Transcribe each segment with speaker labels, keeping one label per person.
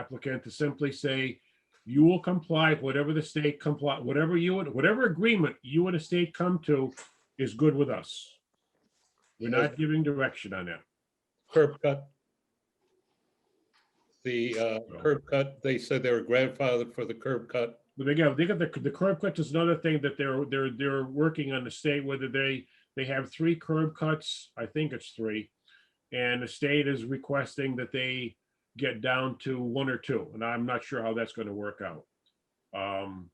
Speaker 1: applicant to simply say, you will comply, with whatever the state comply, whatever you, and whatever agreement you and the state come to is good with us. We're not giving direction on that.
Speaker 2: curb cut. The uh, curb cut, they said they were grandfathered for the curb cut.
Speaker 1: But again, they got the, the curb cut is another thing that they're, they're, they're working on the state, whether they, they have three curb cuts, I think it's three. And the state is requesting that they get down to one or two, and I'm not sure how that's gonna work out. Um,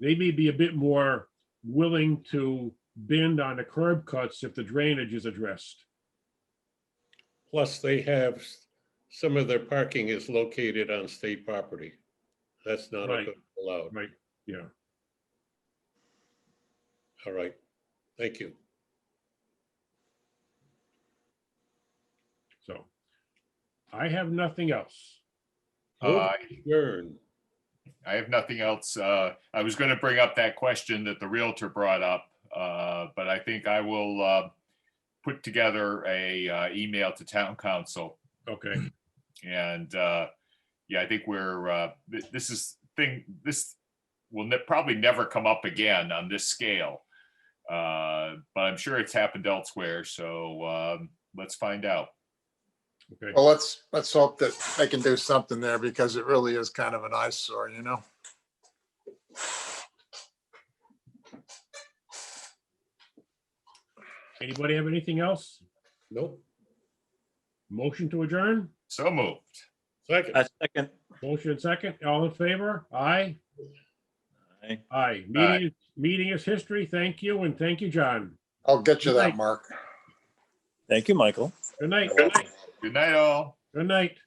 Speaker 1: they may be a bit more willing to bend on the curb cuts if the drainage is addressed.
Speaker 2: Plus, they have, s- some of their parking is located on state property. That's not
Speaker 1: Right.
Speaker 2: allowed.
Speaker 1: Right, yeah.
Speaker 2: All right. Thank you.
Speaker 1: So I have nothing else.
Speaker 2: Move
Speaker 3: Uh,
Speaker 2: to adjourn.
Speaker 3: I have nothing else. Uh, I was going to bring up that question that the Realtor brought up, uh, but I think I will uh, put together a uh, email to Town Council.
Speaker 1: Okay,
Speaker 3: And uh, yeah, I think we're, uh, thi- this is thing, this will ne- probably never come up again on this scale. Uh, But I'm sure it's happened elsewhere, so um, let's find out.
Speaker 1: okay.
Speaker 4: Well, let's, let's hope that they can do something there because it really is kind of an eyesore, you know?
Speaker 1: Anybody have anything else?
Speaker 2: Nope.
Speaker 1: Motion to adjourn?
Speaker 3: So moved.
Speaker 2: Second.
Speaker 5: I second.
Speaker 1: Motion second, all in favor? Aye?
Speaker 5: Aye.
Speaker 1: Aye. Meeting, meeting is history. Thank you, and thank you, John.
Speaker 4: I'll get you
Speaker 1: Good night.
Speaker 4: that, Mark.
Speaker 5: Thank you, Michael.
Speaker 1: Good night, good night,
Speaker 3: Good night, all.
Speaker 1: good night.